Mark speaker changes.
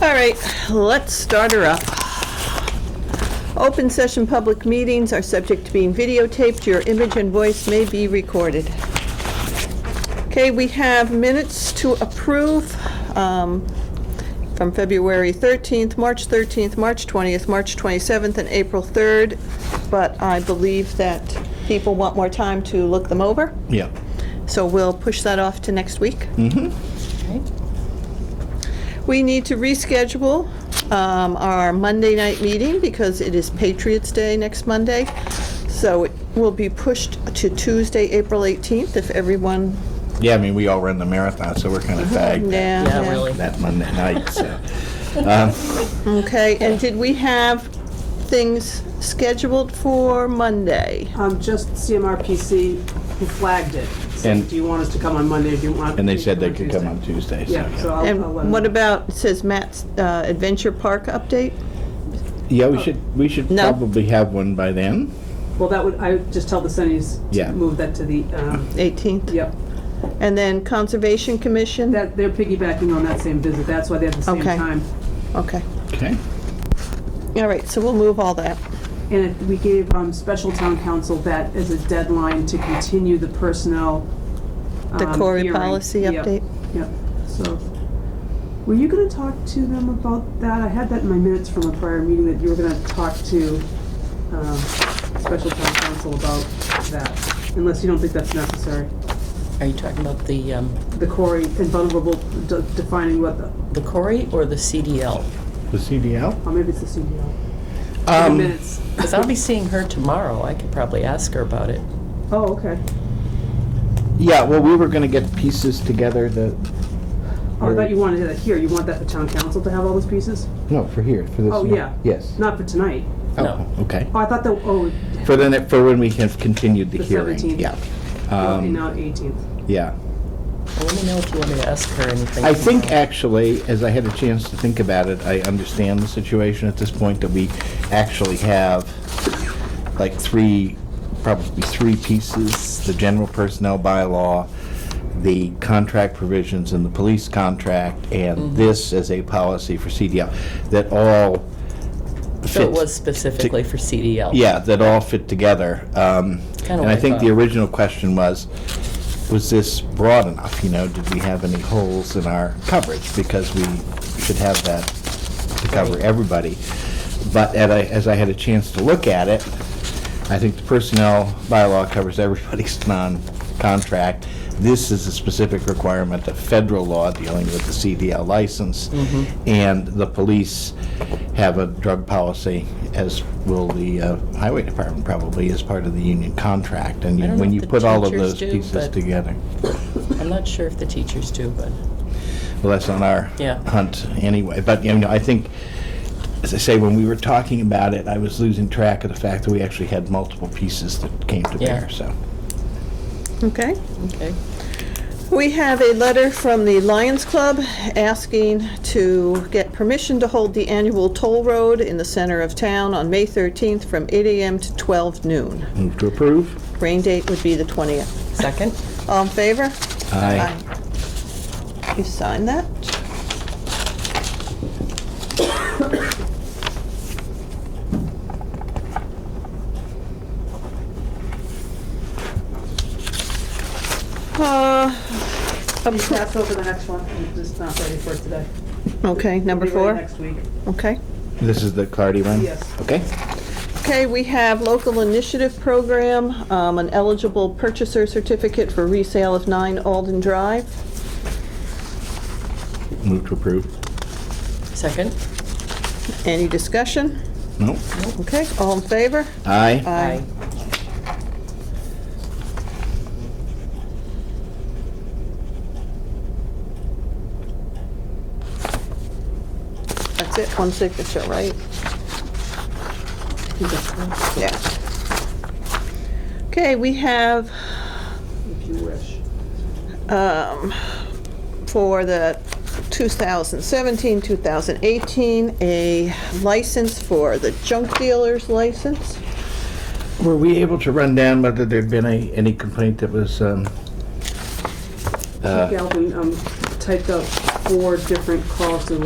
Speaker 1: All right, let's start her up. Open session public meetings are subject to being videotaped. Your image and voice may be recorded. Okay, we have minutes to approve um, from February 13th, March 13th, March 20th, March 27th, and April 3rd, but I believe that people want more time to look them over,
Speaker 2: Yeah.
Speaker 1: so we'll push that off to next week. We need to reschedule um, our Monday night meeting because it is Patriots' Day next Monday. So it will be pushed to Tuesday, April 18th, if everyone,
Speaker 2: Yeah, I mean, we all run the marathon, so we're kind of fagged that-
Speaker 1: Mm-hmm. yeah.
Speaker 3: Yeah, really.
Speaker 2: that Monday night, so. Um,
Speaker 1: Okay, and did we have things scheduled for Monday?
Speaker 4: Um, just CMRPC who flagged it.
Speaker 2: And-
Speaker 4: Said, do you want us to come on Monday? Do you want?
Speaker 2: And they
Speaker 4: me to
Speaker 2: said they
Speaker 4: come on
Speaker 2: could come on Tuesday,
Speaker 4: Tuesday?"
Speaker 2: so.
Speaker 4: Yeah, so I'll, I'll uh, let
Speaker 1: And what
Speaker 4: them-
Speaker 1: about, it says Matt's uh, Adventure Park update?
Speaker 2: Yeah, we should, we should
Speaker 1: No.
Speaker 2: probably have one by then.
Speaker 4: Well, that would, I would just tell the Sunnies
Speaker 2: Yeah.
Speaker 4: to move that to the, um,
Speaker 1: 18th?
Speaker 4: yep.
Speaker 1: And then Conservation Commission?
Speaker 4: That, they're piggybacking on that same visit. That's why they have the same
Speaker 1: Okay.
Speaker 4: time.
Speaker 1: Okay,
Speaker 2: Okay.
Speaker 1: all right, so we'll move all that.
Speaker 4: And it- we gave, um, special town council that as a deadline to continue the personnel,
Speaker 1: The
Speaker 4: um,
Speaker 1: Cory
Speaker 4: hearing.
Speaker 1: policy
Speaker 4: Yep,
Speaker 1: update?
Speaker 4: Yep, so. Were you gonna talk to them about that? I had that in my minutes from a prior meeting that you were gonna talk to, um, special town council about that, unless you don't think that's necessary.
Speaker 3: Are you talking about the, um,
Speaker 4: The Cory and vulnerable, de- defining what the,
Speaker 3: the Cory or the CDL?
Speaker 2: The
Speaker 1: Um,
Speaker 2: CDL?
Speaker 4: oh, maybe it's the CDL. The
Speaker 2: Um,
Speaker 4: minutes.
Speaker 3: Because I'll be seeing her tomorrow, I could probably ask her about it.
Speaker 4: Oh, okay.
Speaker 2: yeah, well, we were gonna get pieces together that,
Speaker 4: Oh, I thought you wanted that here. You want that for town council to have all those pieces?
Speaker 2: no, for here, for this.
Speaker 4: Oh,
Speaker 2: one.
Speaker 4: yeah.
Speaker 2: Yes.
Speaker 4: Not for tonight.
Speaker 2: Oh, okay.
Speaker 4: Oh, I thought that, oh,
Speaker 2: For the, ne- for when we have continued the
Speaker 4: The
Speaker 2: hearing.
Speaker 4: 17th.
Speaker 2: Yeah.
Speaker 4: okay,
Speaker 2: Um,
Speaker 4: now 18th.
Speaker 2: yeah.
Speaker 3: Well, let me know if you want me to ask her anything.
Speaker 2: I think
Speaker 3: tomorrow.
Speaker 2: actually, as I had a chance to think about it, I understand the situation at this point that we actually have like three, probably three pieces, the general personnel bylaw, the contract provisions in the police contract,
Speaker 3: Mm-hmm.
Speaker 2: and this as a policy for CDL, that all fit.
Speaker 3: So it was specifically for CDL.
Speaker 2: Yeah, that all fit together. Um,
Speaker 3: Kinda
Speaker 2: And I
Speaker 3: like
Speaker 2: think the
Speaker 3: a-
Speaker 2: original question was, was this broad enough? You know, did we have any holes in our coverage? Because we should have that to cover everybody. But at I- as I had a chance to look at it, I think the personnel bylaw covers everybody's non-contract. This is a specific requirement of federal law dealing with the CDL license.
Speaker 3: Mm-hmm.
Speaker 2: And the police have a drug policy, as will the uh, highway department probably, as part of the union contract. And
Speaker 3: I don't know
Speaker 2: when
Speaker 3: if
Speaker 2: you
Speaker 3: the
Speaker 2: put all of
Speaker 3: teachers
Speaker 2: those
Speaker 3: do,
Speaker 2: pieces
Speaker 3: but-
Speaker 2: together,
Speaker 3: I'm not sure if the teachers do, but
Speaker 2: well, that's on our
Speaker 3: Yeah.
Speaker 2: hunt anyway. But, you know, I think, as I say, when we were talking about it, I was losing track of the fact that we actually had multiple pieces that came to
Speaker 3: Yeah.
Speaker 2: bear, so.
Speaker 1: Okay?
Speaker 3: okay.
Speaker 1: We have a letter from the Lions Club asking to get permission to hold the annual toll road in the center of town on May 13th from 8 AM to 12 noon.
Speaker 2: Move to approve?
Speaker 1: Rain date would be the 20th.
Speaker 3: Second?
Speaker 1: All in favor?
Speaker 2: Aye.
Speaker 1: Aye. You sign that? Uh,
Speaker 4: You pass over the next one. I'm just not ready for it today.
Speaker 1: Okay, number
Speaker 4: Be ready
Speaker 1: four,
Speaker 4: Next week.
Speaker 1: okay.
Speaker 2: This is the Clardy one?
Speaker 4: Yes.
Speaker 2: Okay.
Speaker 1: Okay, we have local initiative program, um, an eligible purchaser certificate for resale of 9 Alden Drive.
Speaker 2: Move to approve.
Speaker 3: Second?
Speaker 1: Any discussion?
Speaker 2: No?
Speaker 1: Okay, all in favor?
Speaker 2: Aye.
Speaker 3: Aye.
Speaker 1: That's it, one signature, right? Yeah. Okay, we have
Speaker 4: If you wish.
Speaker 1: um, for the 2017, 2018, a license for the junk dealer's license.
Speaker 2: Were we able to run down whether there'd been a, any complaint that was, um,
Speaker 4: Chief Galvin um, typed up four different calls to